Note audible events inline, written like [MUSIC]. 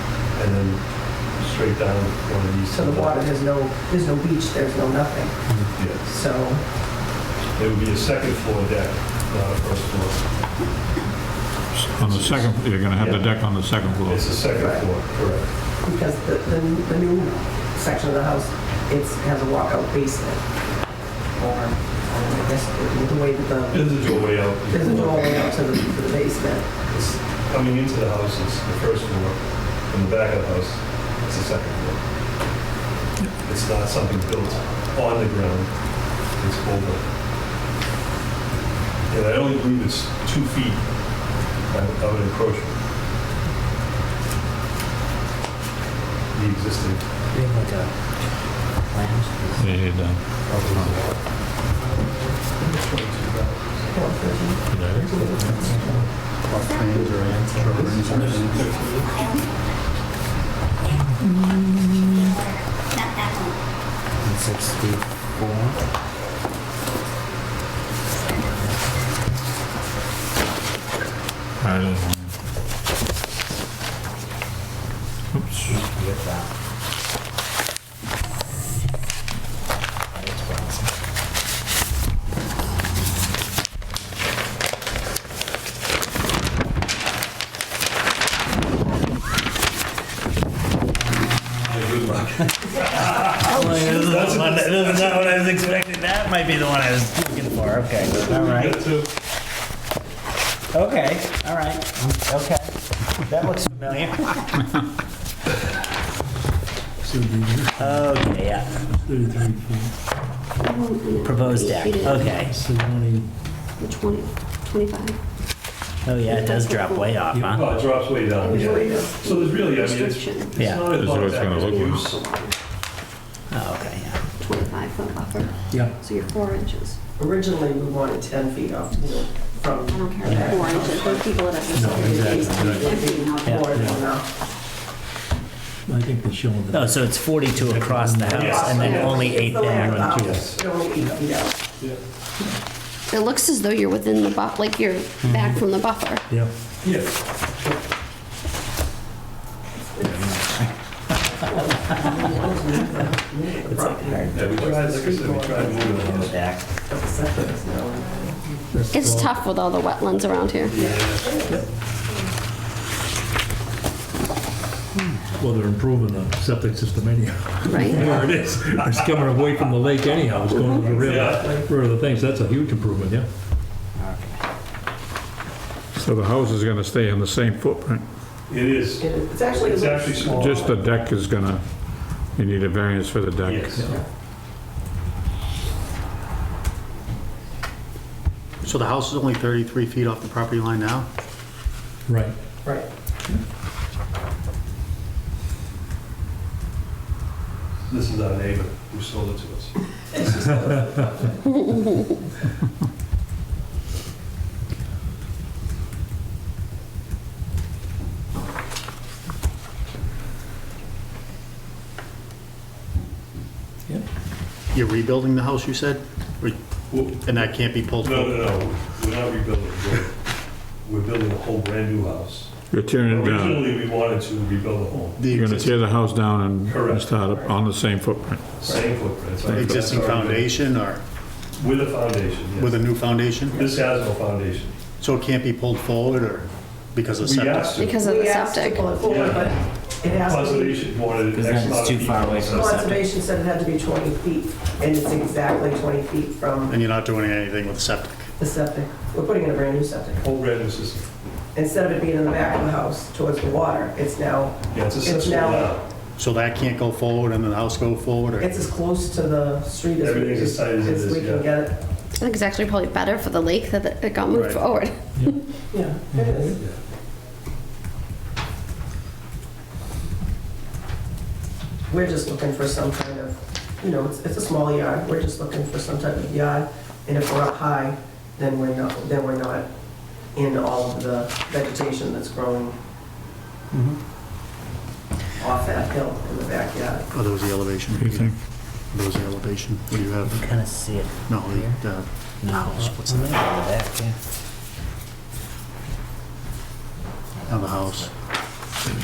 then straight down one of these. So the water, there's no, there's no beach, there's no nothing. Yes, So, it would be a second floor deck, not a first floor. On the second, you're going to have the deck on the second floor. It's a second Right. floor, correct. because the, the the new section of the house, it's, has a walkout basement. Or, um, I guess, the- the way that the, There's a doorway out. there's a doorway out to the, to the basement. It's Coming into the house is the first floor, and the back of the house is the second floor. It's not something built on the ground, it's over. And I only believe it's two feet of of an encroachment. The existing, We have like a plans. Yeah, you're done. And sixty-four. I didn't want to- Oops. Get that. That is awesome. That's not, that's not what I was expecting. That might be the one I was looking for. Okay. All right. Okay. All right. Okay. That looks familiar. Okay. Yeah. Thirty-three feet, Proposed deck. Okay. so only Twenty, twenty-five. Oh yeah, it does drop way off, huh? oh, it drops way down, yeah. So there's really, I mean, it's Restriction, it's Yeah. not as That's long what as it's gonna look like. use. Oh, okay. Yeah. twenty-five foot buffer, yeah, so you're four inches. Originally, we wanted 10 feet off, you know, from I don't care if you're four inches, those people that have. No, exactly, right. exactly. more Yeah. than enough. I think they're showing Oh, that. so it's 42 across the house, and then only eight back. It's Only eight feet out. It looks as though you're within the buff, like you're back from the buffer. Yeah, Yes. It's like hard. Yeah, we tried, like I said, we tried moving the house. Back. It's tough with all the wetlands around here. well, they're improving the septic system anyhow. [LAUGHS] Right? There it is. It's coming away from the lake anyhow, it's going to the river, Yeah. where the things, that's a huge improvement, yeah. So the house is going to stay in the same footprint, It is, It's actually. it's actually small. just the deck is going to, you need a variance for the deck. Yes. So the house is only 33 feet off the property line now? Right. Right. This is our neighbor who sold it to us. You're rebuilding the house, you said? Or- Well, And that can't be pulled? No, no, no, we're not rebuilding. We're- We're building a whole brand-new house. You're tearing it uh, down. Originally, we wanted to rebuild a home, The You're going to exist- tear the house down and- and Correct. start up on the same footprint. same footprint. it's like- existing foundation or With a foundation, yes. with a new foundation? This has no foundation. So it can't be pulled forward or because of We septic? asked to, Because of the We asked to septic. pull it forward, but it has to be, conservation wanted an Because X then amount it's of too feet far from away the from the septic. conservation said it had to be 20 feet, and it's exactly 20 feet from And you're not doing anything with septic? the septic. We're putting in a brand new septic. Whole brand-new system. Instead of it being in the back of the house towards the water, it's now, Yeah, it's It's accessible now- now. So that can't go forward and then the house go forward or? it's as close to the street as we, Everything's as tight as it is, as we can yeah. get it. I think it's actually probably better for the lake that it got moved Right. forward. Yeah, it is. We're just looking for some kind of, you know, it's, it's a small yard, we're just looking for some type of yard, and if we're up high, then we're not, then we're not in all of the vegetation that's growing off that hill in the backyard. Are those the elevation? What do you think? Those the elevation? What do you have? Kind of see it. No, the, uh, No, what's the matter with that? on the house.